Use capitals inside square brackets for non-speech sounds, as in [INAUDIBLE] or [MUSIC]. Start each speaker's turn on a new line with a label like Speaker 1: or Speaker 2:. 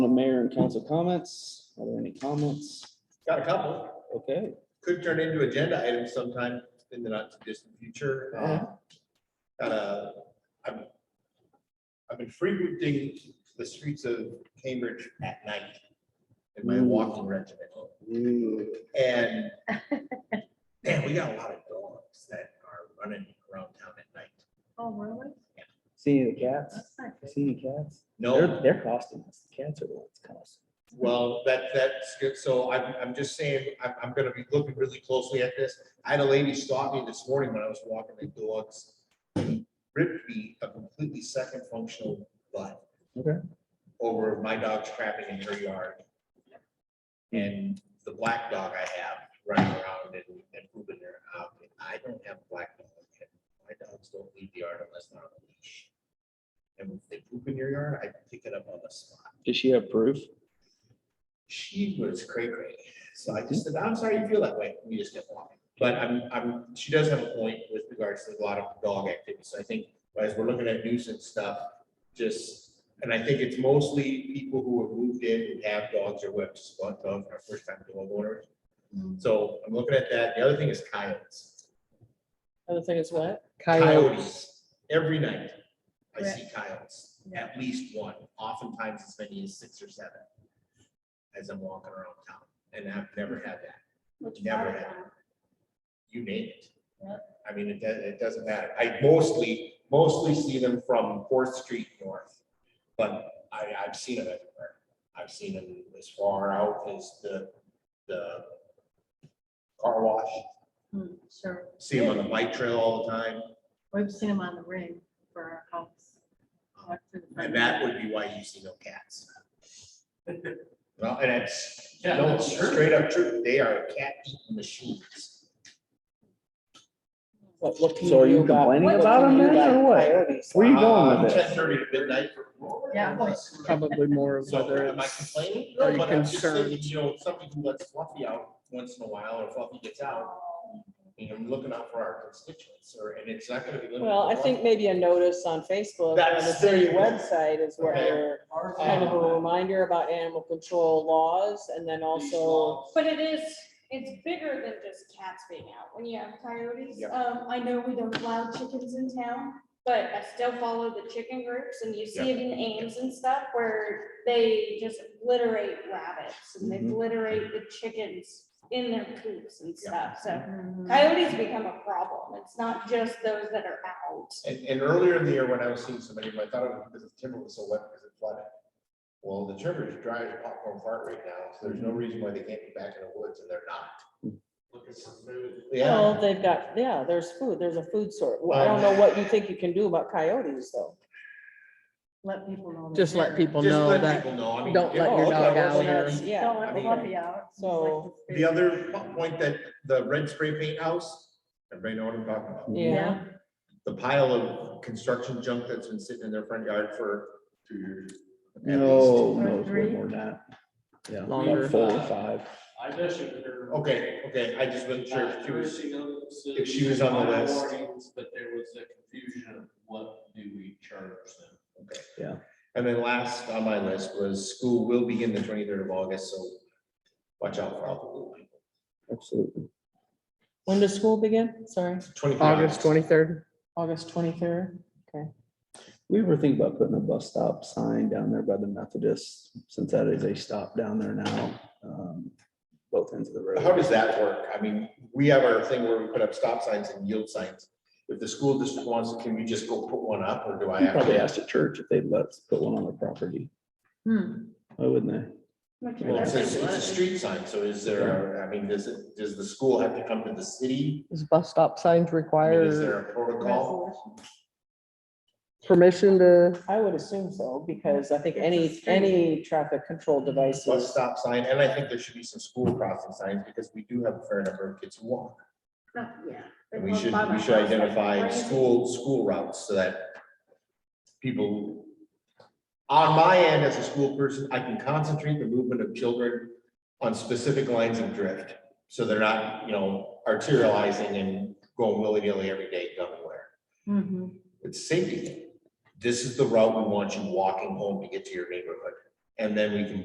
Speaker 1: mayor and council comments. Are there any comments?
Speaker 2: Got a couple.
Speaker 1: Okay,
Speaker 2: Could turn into agenda items sometime in the not too distant future.
Speaker 1: Uh-huh.
Speaker 2: Uh, Got a, I've, I've been frequenting the streets of Cambridge at night in my walking regiment. And man, we got a lot of dogs that are running around town at night.
Speaker 3: Oh, really?
Speaker 1: see any cats?
Speaker 3: That's not good.
Speaker 1: See any cats? They're,
Speaker 2: No,
Speaker 1: they're costing us. The Cats are the ones costing.
Speaker 2: well, that, that's good. So I'm, I'm just saying, I'm, I'm gonna be looking really closely at this. I had a lady stop me this morning when I was walking the dogs. Ripped me a completely second functional butt.
Speaker 1: Okay.
Speaker 2: Over my dog's crapping in her yard. And the black dog I have running around and, and pooping there. Uh, I don't have a black dog. and My dogs don't leave the yard unless they're on a leash. And if they poop in your yard, I pick it up on the spot
Speaker 1: Does she have proof?
Speaker 2: she was cray cray. So I just said, I'm sorry you feel that way. We just kept walking. But I'm, I'm, she does have a point with regards to a lot of dog activity. So I think as we're looking at nuisance stuff, just, and I think it's mostly people who have moved in who have dogs or who have just bought dogs or are first time dog owners. So I'm looking at that. The other thing is coyotes.
Speaker 4: Other thing is what?
Speaker 2: Coyotes. Every night I
Speaker 3: Right.
Speaker 2: see coyotes, at least one, oftentimes as many as six or seven as I'm walking around town. And I've never had that.
Speaker 3: Which
Speaker 2: Never
Speaker 3: part of
Speaker 2: had.
Speaker 3: town?
Speaker 2: you name it.
Speaker 3: Yeah.
Speaker 2: I mean, it, does- it doesn't matter. I mostly, mostly see them from Fourth Street North. But I, I've seen them everywhere. I've seen them as far out as the, the car wash.
Speaker 3: Hmm, Sure,
Speaker 2: See them on the bike trail all the time.
Speaker 3: we've seen them on the ring for our house.
Speaker 2: Uh-huh.
Speaker 3: Walk through the front
Speaker 2: And that would be why you see no cats. Well, and it's,
Speaker 4: Yeah,
Speaker 2: no,
Speaker 4: that's true.
Speaker 2: straight up true. They are cat eating machines.
Speaker 4: What, what can
Speaker 1: So are you
Speaker 4: you do about?
Speaker 1: complaining
Speaker 4: what
Speaker 1: about
Speaker 4: can you
Speaker 1: them
Speaker 4: do
Speaker 1: then, or
Speaker 4: about
Speaker 1: what?
Speaker 4: coyotes?
Speaker 1: Where you going
Speaker 2: Um,
Speaker 1: with this?
Speaker 2: 10:30 to midnight.
Speaker 3: Yeah.
Speaker 4: [LAUGHS] Probably more of
Speaker 2: So
Speaker 4: whether
Speaker 2: am I
Speaker 4: it's,
Speaker 2: complaining?
Speaker 4: are
Speaker 2: No,
Speaker 4: you
Speaker 2: but I'm just
Speaker 4: concerned?
Speaker 2: thinking, you know, somebody who lets Fluffy out once in a while or Fluffy gets out, you know, I'm looking out for our constituents or, and it's not gonna be. limited
Speaker 4: well, I
Speaker 2: to
Speaker 4: think
Speaker 2: one.
Speaker 4: maybe a notice on Facebook, or on the
Speaker 2: That's-
Speaker 4: city website is
Speaker 2: Okay.
Speaker 4: where
Speaker 5: Our
Speaker 4: kind of a
Speaker 5: town,
Speaker 4: reminder about animal control laws and then
Speaker 5: these
Speaker 4: also,
Speaker 5: laws,
Speaker 6: But it is, it's bigger than just cats being out when you have coyotes.
Speaker 2: Yeah.
Speaker 6: Um, I know we don't allow chickens in town, but I still follow the chicken groups and you see it in Ames and stuff where they just obliterate rabbits and they
Speaker 2: Mm-hmm.
Speaker 1: Mhm.
Speaker 6: obliterate the chickens in their coops and
Speaker 2: Yeah.
Speaker 6: stuff. So
Speaker 3: Mhm.
Speaker 6: coyotes become a problem. It's not just those that are out.
Speaker 2: And, and earlier in the year when I was seeing somebody, I thought it was because the timber was so wet because it flooded. Well, the timber is dry as popcorn fart right now, so there's no reason why they can't be back in the woods and they're not. Looking for food.
Speaker 4: well,
Speaker 2: Yeah,
Speaker 4: they've got, yeah, there's food, there's a food sort. Well, I don't know
Speaker 2: Um,
Speaker 4: what you think you can do about coyotes though.
Speaker 3: Let people know.
Speaker 7: Just
Speaker 3: they're
Speaker 7: let
Speaker 3: there.
Speaker 7: people
Speaker 2: just
Speaker 7: know
Speaker 2: let
Speaker 7: that,
Speaker 2: people know. I mean,
Speaker 7: don't
Speaker 2: yeah,
Speaker 7: let your
Speaker 2: oh,
Speaker 7: dog
Speaker 2: okay, I
Speaker 7: out
Speaker 2: wasn't
Speaker 4: there.
Speaker 2: really-
Speaker 4: Yeah.
Speaker 3: Don't
Speaker 2: I
Speaker 3: let the
Speaker 2: mean,
Speaker 3: puppy out. It's like
Speaker 4: so
Speaker 3: this
Speaker 2: The
Speaker 3: big-
Speaker 2: other po- point that the red spray paint house, everybody know what I'm talking about?
Speaker 4: yeah.
Speaker 2: The pile of construction junk that's been sitting in their front yard for two years. at
Speaker 1: No,
Speaker 3: least.
Speaker 1: no, it's way
Speaker 3: Three?
Speaker 1: more than that. Yeah,
Speaker 7: Longer.
Speaker 1: about four or five.
Speaker 5: I mentioned her.
Speaker 2: least. Okay, okay, I just wasn't sure if she was,
Speaker 5: Nursing homes
Speaker 2: if she was on the
Speaker 5: and
Speaker 2: list.
Speaker 5: warnings, But there was a confusion of what do we charge them?
Speaker 2: and then last on my list was school will begin the twenty-third of August, so watch out for all the little people.
Speaker 1: Absolutely.
Speaker 4: When does school begin? Sorry,
Speaker 2: 23rd
Speaker 7: August twenty-third.
Speaker 4: August twenty-third? Okay.
Speaker 1: We ever think about putting a bus stop sign down there by the Methodist, since that is a stop down there now, um, both ends of the
Speaker 2: How
Speaker 1: road.
Speaker 2: does that work? I mean, we have our thing where we put up stop signs and yield signs. If the school district wants, can we just go put one up or do I
Speaker 1: You
Speaker 2: have?
Speaker 1: probably
Speaker 2: to?
Speaker 1: asked the church if they'd let us put one on their property.
Speaker 3: Hmm.
Speaker 1: Why wouldn't they?
Speaker 2: Well, it's, it's it's a street sign, so is there, I mean, does it, does the school have to come to the city?
Speaker 7: Is bus stop signs
Speaker 2: I mean, Is
Speaker 7: require
Speaker 2: there a protocol?
Speaker 7: permission to?
Speaker 4: I would assume so, because I think
Speaker 3: It's a
Speaker 4: any,
Speaker 3: street.
Speaker 4: any traffic control
Speaker 2: Plus
Speaker 4: devices,
Speaker 2: stop sign, and I think there should be some school crossing signs because we do have a fair number of kids who walk.
Speaker 3: No, yeah.
Speaker 2: And we should, we should identify school, school routes so that people, on my end as a school person, I can concentrate the movement of children on specific lines of drift. So they're not, you know, arterializing and going willy-nilly every day, dumb and where.
Speaker 3: Mhm.
Speaker 2: It's a safety. thing. This is the route we want you walking home to get to your neighborhood. And then we can